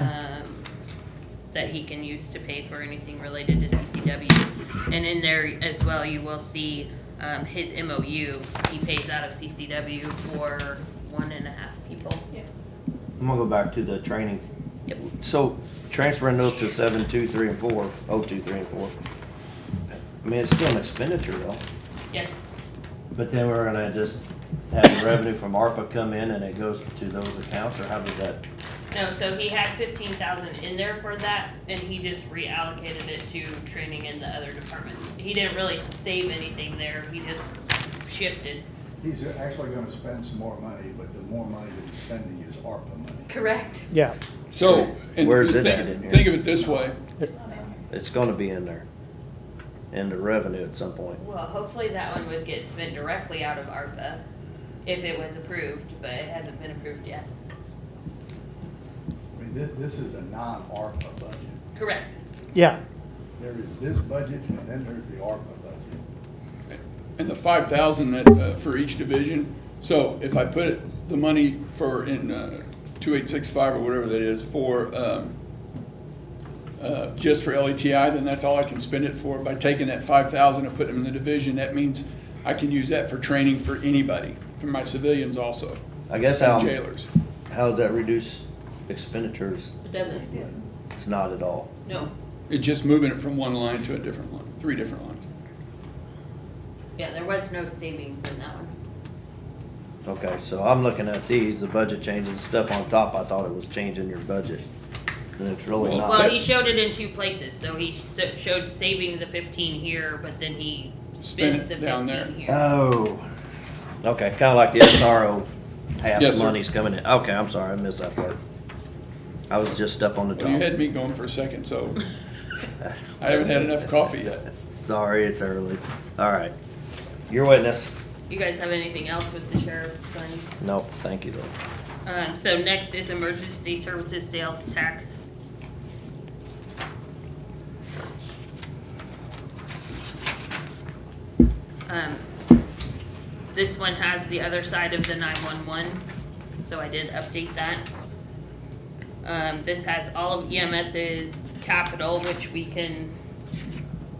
um, he can use to pay for anything related to CCW. And in there as well, you will see, um, his MOU, he pays out of CCW for one and a half people. Yes. I'm gonna go back to the training. Yep. So transferring those to seven, two, three, and four, oh, two, three, and four. I mean, it's still an expenditure though, Yes, but then we're gonna just have the revenue from ARPA come in and it goes to those accounts, or how does that? no, so he had fifteen thousand in there for that, and he just reallocated it to training in the other departments. He didn't really save anything there, he just shifted. He's actually gonna spend some more money, but the more money that he's spending is ARPA money. Correct. Yeah, So, So, and where's th- it at in here? Think of it this way, It's gonna be in there. In the revenue at some point. Well, hopefully that one would get spent directly out of ARPA if it was approved, but it hasn't been approved yet. I mean, this, this is a non-ARPA budget. Correct. yeah, There is this budget and then there's the ARPA budget. and the five thousand that, uh, for each division, so if I put it- the money for in, uh, two eight six five or whatever that is for, um, uh, just for LETI, then that's all I can spend it for. By taking that five thousand and putting it in the division, that means I can use that for training for anybody, for my civilians also, I guess how, and jailers. how's that reduce expenditures? It doesn't? It's not at all. No. It's just moving it from one line to a different line, three different lines. Yeah, there was no savings in that one. Okay, so I'm looking at these, the budget changes, the stuff on top, I thought it was changing your budget. And it's really Well, not. Well, he showed it in two places, so he s- showed saving the fifteen here, but then he spent Spent the it down there. fifteen here. Oh. Okay, kinda like the SRO, half Yes, the sir. money's coming in. Okay, I'm sorry, I missed that part. I was just up on the Well, you had top. me going for a second, so I haven't had enough coffee yet. Sorry, it's early. All right. Your witness. You guys have anything else with the sheriff's fund? No, thank you though. Um, so next is emergency services sales tax. Um, this one has the other side of the nine-one-one, so I did update that. Um, this has all of EMS's capital, which we can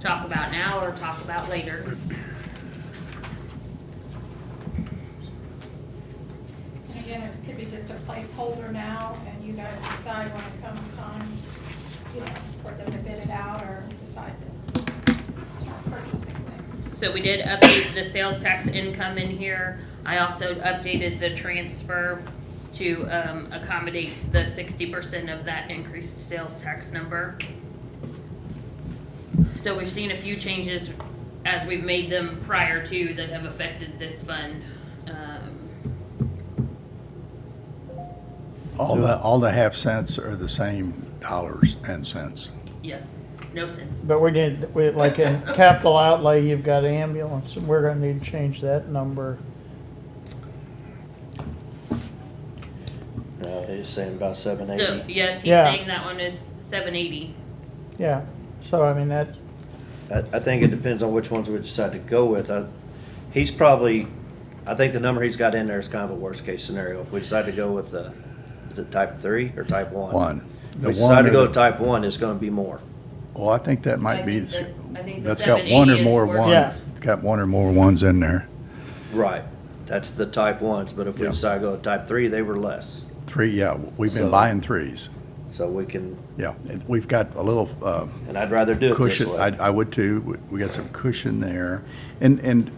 talk about now or talk about later. And again, it could be just a placeholder now, and you guys decide when it comes time, you know, for them to bid it out or decide to start purchasing things. So we did update the sales tax income in here. I also updated the transfer to um, accommodate the sixty percent of that increased sales tax number. So we've seen a few changes as we've made them prior to that have affected this fund. Um, All the, all the half cents are the same dollars and cents. Yes, no sense. but we did, we, like in capital outlay, you've got ambulance, and we're gonna need to change that number. Uh, he's saying about seven So, eighty. yes, he's Yeah. saying that one is seven eighty. Yeah, so I mean, that, I, I think it depends on which ones we decide to go with. I, he's probably, I think the number he's got in there is kind of a worst case scenario. If we decide to go with the, is it type three or type one? One. If The we decide to one go or to the- type one, it's gonna be more. Well, I think that I might be, think the- that- I think the that's got one or 780 is more worth it. Yeah. ones, It's got one or more ones in there. Right, that's the type ones, but if we Yeah. decide to go to type three, they were less. Three, yeah, we've So- been buying threes, So we can, yeah. and We've got a little, uh, and I'd rather do it this cushion, I, way. I would too. We- We got some cushion there. And, and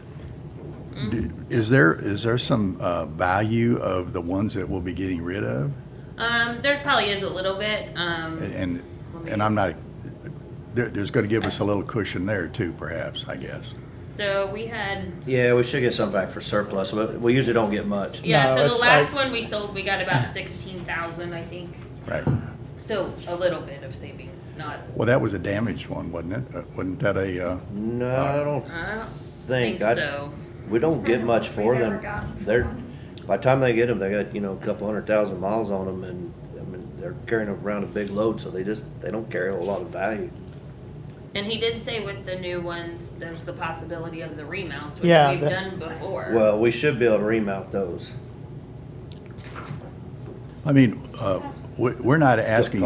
d- is there, is there some uh, value of the ones that we'll be getting rid of? Um, there probably is a little bit, um. And- And, and I'm not, there, there's going to give us a little cushion there too, perhaps, I guess. So we had Yeah, we should get some back for surplus, but we usually don't get much. Yeah, No, so the it's last like- one we sold, we got about sixteen thousand, I think. Right. So a little bit of savings, not. Well, that was a damaged one, wasn't it? Uh, Wasn't that a, uh, No, I don't I don't think, think I, so. we don't get much We for never them. got They're, one. by the time they get them, they got, you know, a couple hundred thousand miles on them and, I mean, they're carrying around a big load, so they just, they don't carry a whole lot of value. And he did say with the new ones, there's the possibility of the remounts, which Yeah, we've that- done before. Well, we should be able to remount those. I mean, uh, we- we're not asking